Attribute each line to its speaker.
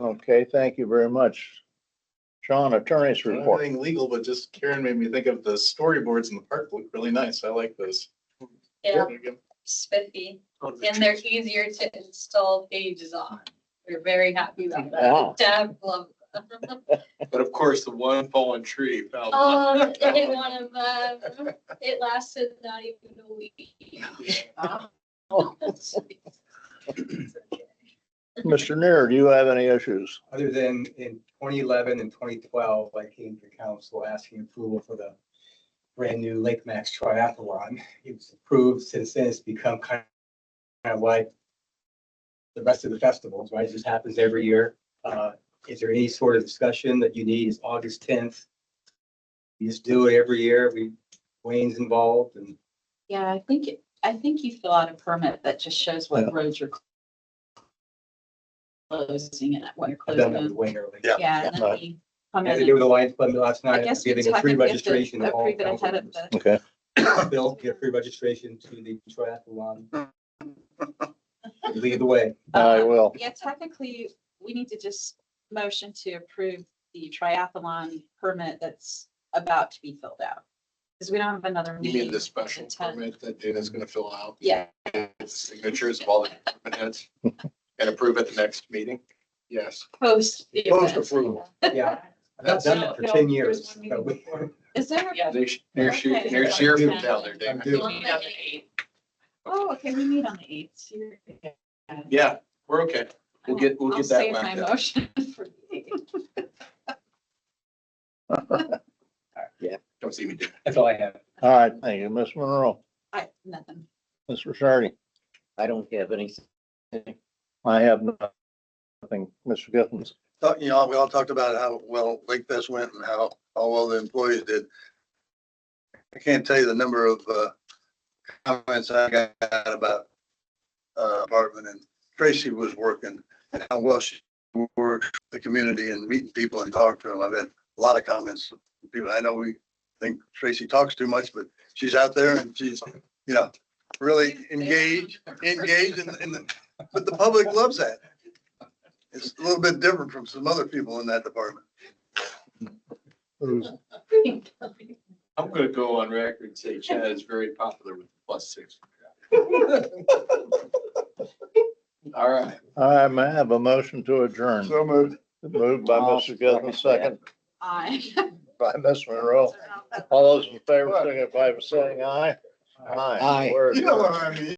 Speaker 1: Okay, thank you very much. Sean, attorney's
Speaker 2: Not
Speaker 1: report.
Speaker 2: Anything legal, but just Karen made me think of the storyboards in the park look really nice. I like those.
Speaker 3: Yeah, spiffy, and they're easier to install pages on. We're very happy about
Speaker 1: Yeah.
Speaker 4: Uh-huh.
Speaker 3: that. Deb loved. them.
Speaker 5: But of course, the one fallen tree fell.
Speaker 4: Um,
Speaker 3: Oh, they hit one of them. It lasted not even a week.
Speaker 1: Mr. Neer, do you have any issues?
Speaker 6: other than in twenty eleven and twenty twelve, I came to council asking approval for the brand new Lake Max Triathlon. It was approved since then. It's become kind of like the rest of the festivals, right? It just happens every year. Uh, is there any sort of discussion that you need? It's August tenth. You just do it every year. We, Wayne's involved and
Speaker 4: Yeah, I think, it- I think you fill out a permit that just shows
Speaker 1: Yeah.
Speaker 4: what roads you're closing and what you're
Speaker 6: I've done that with
Speaker 4: closing.
Speaker 6: Wayne earlier.
Speaker 4: Yeah,
Speaker 1: Yeah.
Speaker 4: and then we come
Speaker 6: Had to
Speaker 4: in
Speaker 6: do
Speaker 4: and
Speaker 6: with the Lions Club last
Speaker 4: I
Speaker 6: night.
Speaker 4: guess we
Speaker 6: Giving a free
Speaker 4: technically have to
Speaker 6: registration to all
Speaker 4: approve it ahead
Speaker 6: council
Speaker 4: of
Speaker 6: members.
Speaker 4: the-
Speaker 1: Okay,
Speaker 6: Bill, get free registration to the triathlon. Lead the way.
Speaker 1: I will.
Speaker 4: Yeah, technically, we need to just motion to approve the triathlon permit that's about to be filled out. Because we don't have another
Speaker 5: You
Speaker 4: meeting.
Speaker 5: mean the special
Speaker 4: until ten.
Speaker 5: permit that Dana's gonna fill out,
Speaker 4: Yeah,
Speaker 5: with the signatures of all the department heads and approve at the next meeting? Yes.
Speaker 4: post. the
Speaker 5: Post
Speaker 4: event.
Speaker 5: approval.
Speaker 6: Yeah. I've not done that for ten years. so we-
Speaker 4: Is there,
Speaker 5: They sh- Near shoot, near sheer down there,
Speaker 6: I'm
Speaker 5: Dana.
Speaker 6: due.
Speaker 4: oh, okay, we meet on the eighth. You're-
Speaker 5: Yeah, we're okay. We'll get, we'll
Speaker 4: I'll
Speaker 5: get that
Speaker 4: save my
Speaker 5: wrapped up.
Speaker 4: motion for the eighth.
Speaker 5: Don't see me do it.
Speaker 6: That's all I have.
Speaker 1: All right, thank you. Ms. Monroe,
Speaker 4: I, nothing.
Speaker 1: Ms. Sardi,
Speaker 7: I don't have any,
Speaker 1: I have nothing. Mr. Githens.
Speaker 8: talk- you know, we all talked about how well Lake Fest went and how, how well the employees did. I can't tell you the number of, uh, comments I got about, uh, apartment and Tracy was working and how well she worked the community and meeting people and talking to them. I've had a lot of comments. from People, I know we think Tracy talks too much, but she's out there and she's, you know, really engaged, engaged in, in the, but the public loves that. It's a little bit different from some other people in that department.
Speaker 1: Who's-
Speaker 5: I'm gonna go on record and say Chad is very popular with the plus six. All right.
Speaker 1: I may have a motion to adjourn.
Speaker 8: So moved.
Speaker 1: Moved by
Speaker 7: I'll
Speaker 1: Mr. Githens, second
Speaker 7: second
Speaker 4: I.
Speaker 1: by Ms. Monroe. All those in favor, signify by saying aye.
Speaker 7: Aye.
Speaker 1: We're
Speaker 8: You know
Speaker 1: adjourned.
Speaker 8: what I mean?